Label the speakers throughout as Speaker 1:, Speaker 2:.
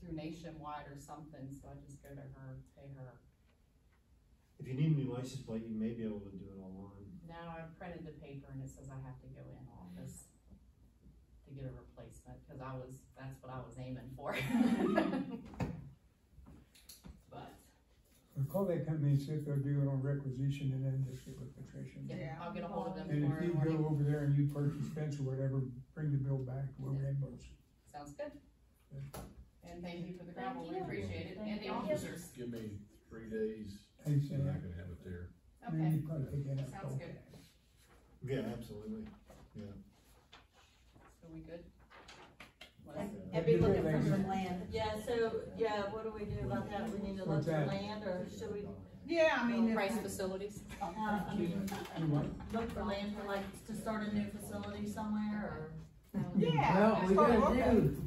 Speaker 1: through Nationwide or something, so I just go to her, pay her.
Speaker 2: If you need a new license plate, you may be able to do it online.
Speaker 1: Now I printed the paper and it says I have to go in office to get a replacement, cause I was, that's what I was aiming for. But,
Speaker 3: Or Call that company and see if they'll do it on requisition and then just get with Patricia.
Speaker 1: yeah, I'll get a hold of them
Speaker 3: And if
Speaker 1: tomorrow
Speaker 3: you
Speaker 1: morning,
Speaker 3: go over there and you purchase fence or whatever, bring the bill back, we'll reimburse.
Speaker 1: sounds good. And thank you for the
Speaker 4: Thank
Speaker 1: gravel, we
Speaker 4: you.
Speaker 1: appreciate it, and the
Speaker 4: Thank you.
Speaker 1: officers,
Speaker 5: Give me three days,
Speaker 3: Thanks,
Speaker 5: and I
Speaker 3: Sam.
Speaker 5: can have it there.
Speaker 1: okay,
Speaker 3: You probably take that out.
Speaker 1: sounds good,
Speaker 2: Yeah, absolutely.
Speaker 1: so we good? What else?
Speaker 4: And,
Speaker 2: Yeah.
Speaker 4: and be
Speaker 3: Good
Speaker 4: looking for
Speaker 3: lady.
Speaker 4: some land. Yeah, so, yeah, what do we do about that? We need to look
Speaker 3: What's
Speaker 4: for
Speaker 3: that?
Speaker 4: land or should we,
Speaker 6: Yeah, I mean. if-
Speaker 1: Price facilities?
Speaker 4: uh, I mean,
Speaker 3: You what?
Speaker 4: look for land for like, to start a new facility somewhere
Speaker 6: Yeah.
Speaker 7: Well, we
Speaker 6: that's
Speaker 7: gotta
Speaker 6: what- okay.
Speaker 7: do,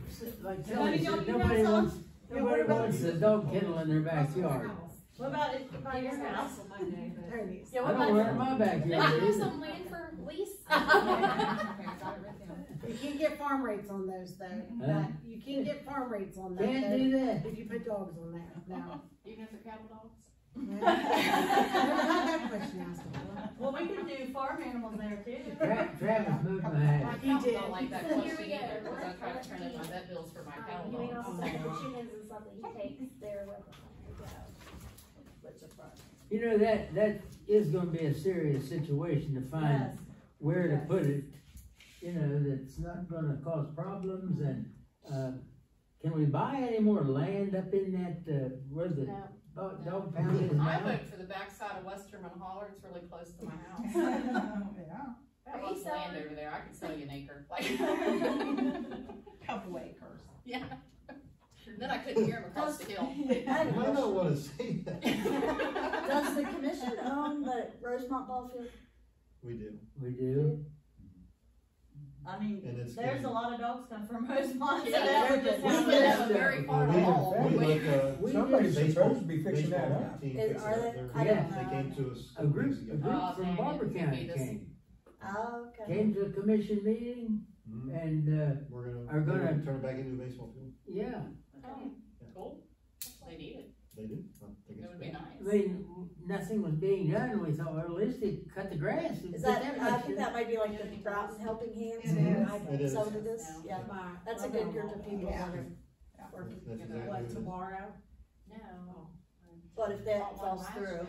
Speaker 4: Honey,
Speaker 7: like Kelly
Speaker 4: don't
Speaker 7: said,
Speaker 4: you
Speaker 7: nobody
Speaker 4: run
Speaker 7: wants,
Speaker 6: Yeah, what
Speaker 7: nobody
Speaker 6: about-
Speaker 7: wants a dog kennel in their backyard.
Speaker 4: or? What about it, by your house?
Speaker 6: There it is.
Speaker 4: Yeah,
Speaker 7: I
Speaker 4: what
Speaker 7: don't want it in
Speaker 4: about?
Speaker 7: my backyard either.
Speaker 8: some land for lease?
Speaker 6: You can't get farm rates on those though,
Speaker 7: Huh?
Speaker 6: But you can't get farm rates on that
Speaker 7: Can't
Speaker 6: though,
Speaker 7: do that.
Speaker 6: if you put dogs on there, no.
Speaker 1: Even if they're cattle dogs?
Speaker 6: Never had that question asked.
Speaker 4: Well, we can do farm animals there too.
Speaker 7: Tra- Travis moved my house.
Speaker 1: My cattle
Speaker 6: did.
Speaker 1: don't like that
Speaker 8: Here
Speaker 1: question
Speaker 8: we go.
Speaker 1: either, cause I tried to turn in my vet bills for my cattle
Speaker 8: Uh, You mean
Speaker 7: Oh,
Speaker 1: dogs.
Speaker 8: also the chickens and stuff that he takes there with him.
Speaker 4: Which is fun.
Speaker 7: You know, that, that is gonna be a serious situation to find
Speaker 4: Yes,
Speaker 7: where to
Speaker 4: Yes.
Speaker 7: put it, you know, that's not gonna cause problems and, uh, can we buy any more land up in that, uh, where the
Speaker 8: No.
Speaker 7: dog, dog pound is
Speaker 1: I
Speaker 7: now?
Speaker 1: vote for the backside of Westerman Holler, it's really close to my house.
Speaker 6: Yeah,
Speaker 1: I have lots of
Speaker 8: Are you
Speaker 1: land
Speaker 8: selling?
Speaker 1: over there, I could sell you an acre. Like-
Speaker 6: couple acres.
Speaker 1: Yeah. Then I couldn't hear him across the hill.
Speaker 2: I don't wanna say that.
Speaker 4: Does the commission
Speaker 8: own the Rosemont ball field?
Speaker 2: We do,
Speaker 7: We do,
Speaker 4: I mean,
Speaker 2: and it's.
Speaker 4: there's a lot of dogs come from Rosemont, so
Speaker 1: Yeah,
Speaker 4: that would
Speaker 1: We
Speaker 4: just
Speaker 1: live
Speaker 4: happen.
Speaker 7: yeah.
Speaker 1: in a very far
Speaker 2: We-
Speaker 1: hall.
Speaker 2: We
Speaker 1: We-
Speaker 2: look, uh,
Speaker 7: We-
Speaker 3: Somebody's supposed to be
Speaker 2: baseball-
Speaker 3: fixing that
Speaker 2: baseball
Speaker 3: up.
Speaker 2: team
Speaker 8: Is-
Speaker 2: fixes
Speaker 8: are
Speaker 2: it
Speaker 8: they-
Speaker 2: up.
Speaker 8: I
Speaker 2: They're-
Speaker 7: don't
Speaker 2: They came to us.
Speaker 7: a group,
Speaker 1: Oh,
Speaker 7: a group
Speaker 1: dang
Speaker 7: from
Speaker 1: it.
Speaker 7: Barber County
Speaker 1: Feed us.
Speaker 7: came.
Speaker 4: Oh, okay.
Speaker 7: came to a commission meeting
Speaker 2: Mhm.
Speaker 7: and, uh,
Speaker 2: We're gonna,
Speaker 7: Are
Speaker 2: we're
Speaker 7: gonna-
Speaker 2: gonna turn it back into a baseball field.
Speaker 7: yeah,
Speaker 8: Oh.
Speaker 1: Cool, they need it,
Speaker 2: They do. Oh, I think
Speaker 1: it
Speaker 2: it's
Speaker 1: would be
Speaker 2: great.
Speaker 7: I
Speaker 1: nice.
Speaker 7: mean, nothing was being done. We thought, well, at least they cut the grass.
Speaker 4: Is
Speaker 8: That, I think that might be like the Broughton Helping Hands.
Speaker 2: It is.
Speaker 8: Some of this,
Speaker 1: No.
Speaker 8: yeah, that's a good group of people that are working.
Speaker 2: That's
Speaker 1: You know,
Speaker 2: exactly
Speaker 4: What,
Speaker 2: what it is.
Speaker 4: tomorrow?
Speaker 1: No.
Speaker 8: But if that
Speaker 1: Bought one
Speaker 8: falls
Speaker 1: last
Speaker 8: through.
Speaker 1: year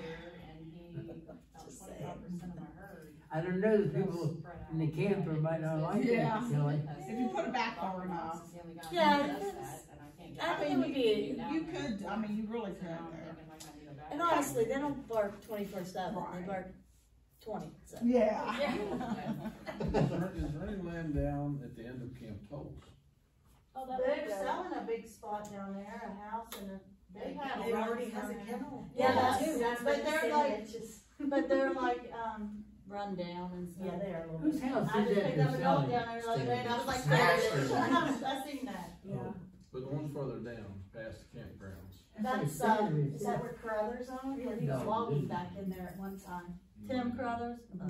Speaker 1: And he, about
Speaker 8: Just
Speaker 1: twenty-five percent of my herd.
Speaker 7: I don't know, the
Speaker 1: was
Speaker 7: people
Speaker 1: spread out.
Speaker 7: in the camper might not like
Speaker 6: Yeah.
Speaker 7: that, Kelly.
Speaker 6: If you put it back far enough.
Speaker 8: Yeah,
Speaker 1: Yeah.
Speaker 8: it's-
Speaker 1: I
Speaker 8: I
Speaker 1: mean,
Speaker 8: mean,
Speaker 1: you
Speaker 8: you did-
Speaker 1: could,
Speaker 6: You could, I mean, you really could there.
Speaker 8: And honestly, they don't bark twenty-four seven, they
Speaker 6: Right.
Speaker 8: bark twenty, so.
Speaker 6: Yeah.
Speaker 5: Is there- is there any land down at the end of Camp Toles?
Speaker 8: Oh, that would
Speaker 4: They're
Speaker 8: be good.
Speaker 4: selling a big spot down there, a house and a, they have.
Speaker 6: It
Speaker 4: lots
Speaker 6: already
Speaker 4: down
Speaker 6: has a
Speaker 4: there.
Speaker 6: kennel.
Speaker 8: Yeah,
Speaker 4: Yes,
Speaker 8: that's, that's
Speaker 4: but
Speaker 8: what
Speaker 4: they're
Speaker 8: they're
Speaker 4: like-
Speaker 8: like.
Speaker 4: But they're like, um, rundown and stuff.
Speaker 8: Yeah, they are a little
Speaker 7: Whose
Speaker 8: bit.
Speaker 7: house
Speaker 4: I
Speaker 7: is
Speaker 4: just
Speaker 7: that
Speaker 4: picked up
Speaker 7: they're
Speaker 4: a dog
Speaker 7: selling?
Speaker 4: down there the other day and I was like,
Speaker 2: Smashed
Speaker 4: "There it is."
Speaker 2: it.
Speaker 4: I seen that.
Speaker 6: Yeah.
Speaker 5: But the one further down, past the campgrounds.
Speaker 4: That's, uh, is that where Carruthers owned? Yeah, he was
Speaker 7: No.
Speaker 4: logging back in there at one time. Tim Carruthers? Uh,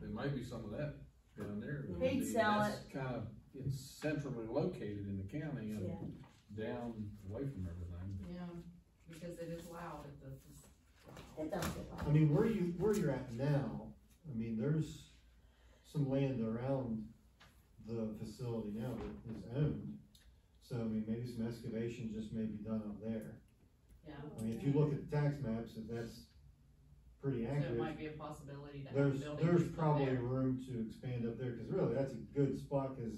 Speaker 5: There might be some of that down there.
Speaker 4: He'd sell
Speaker 5: it. Kind of, it's centrally located in the county
Speaker 4: Yeah.
Speaker 5: and down away from everything.
Speaker 1: Yeah, because it is loud at the,
Speaker 4: It does get loud.
Speaker 2: I mean, where you, where you're at now, I mean, there's some land around the facility now that is owned. So, I mean, maybe some excavation just may be done up there.
Speaker 1: yeah,
Speaker 2: I mean, if you look at the tax maps, if that's pretty
Speaker 1: so it
Speaker 2: accurate,
Speaker 1: might be a possibility to have a
Speaker 2: there's,
Speaker 1: building.
Speaker 2: there's
Speaker 1: up
Speaker 2: probably
Speaker 1: there.
Speaker 2: room to expand up there, cause really, that's a good spot, cause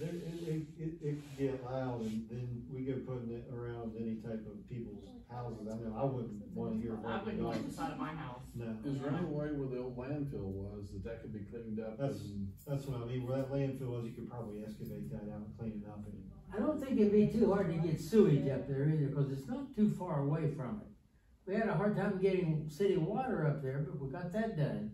Speaker 2: there, it, it, it, it could get loud, and then we go putting it around any type of people's houses, I know, I wouldn't wanna hear. a
Speaker 1: I wouldn't
Speaker 2: barking dog.
Speaker 1: want the side of my house.
Speaker 2: No.
Speaker 5: Is there any way where the old landfill was that that could be cleaned up
Speaker 2: That's-
Speaker 5: and
Speaker 2: That's what I mean, where that landfill was, you could probably excavate that out and clean it up and.
Speaker 7: I don't think it'd be too hard to get sewage up there either, cause it's not too far away from it. We had a hard time getting city water up there, but we got that done.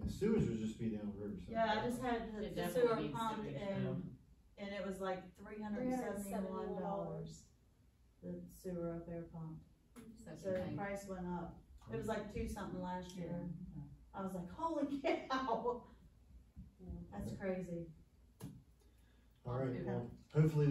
Speaker 2: and sewage would just be downriver. so-
Speaker 4: Yeah, I just had the-
Speaker 1: It
Speaker 4: the
Speaker 1: definitely
Speaker 4: sewer
Speaker 1: needs
Speaker 4: pump
Speaker 1: sewage
Speaker 4: and, and it was like three hundred and seventy-one dollars. The sewer up there pump.
Speaker 1: Such
Speaker 4: So
Speaker 1: a
Speaker 4: the
Speaker 1: thing.
Speaker 4: price went up. It was like two something last year. I was like, holy cow. That's crazy.
Speaker 2: All right, well, hopefully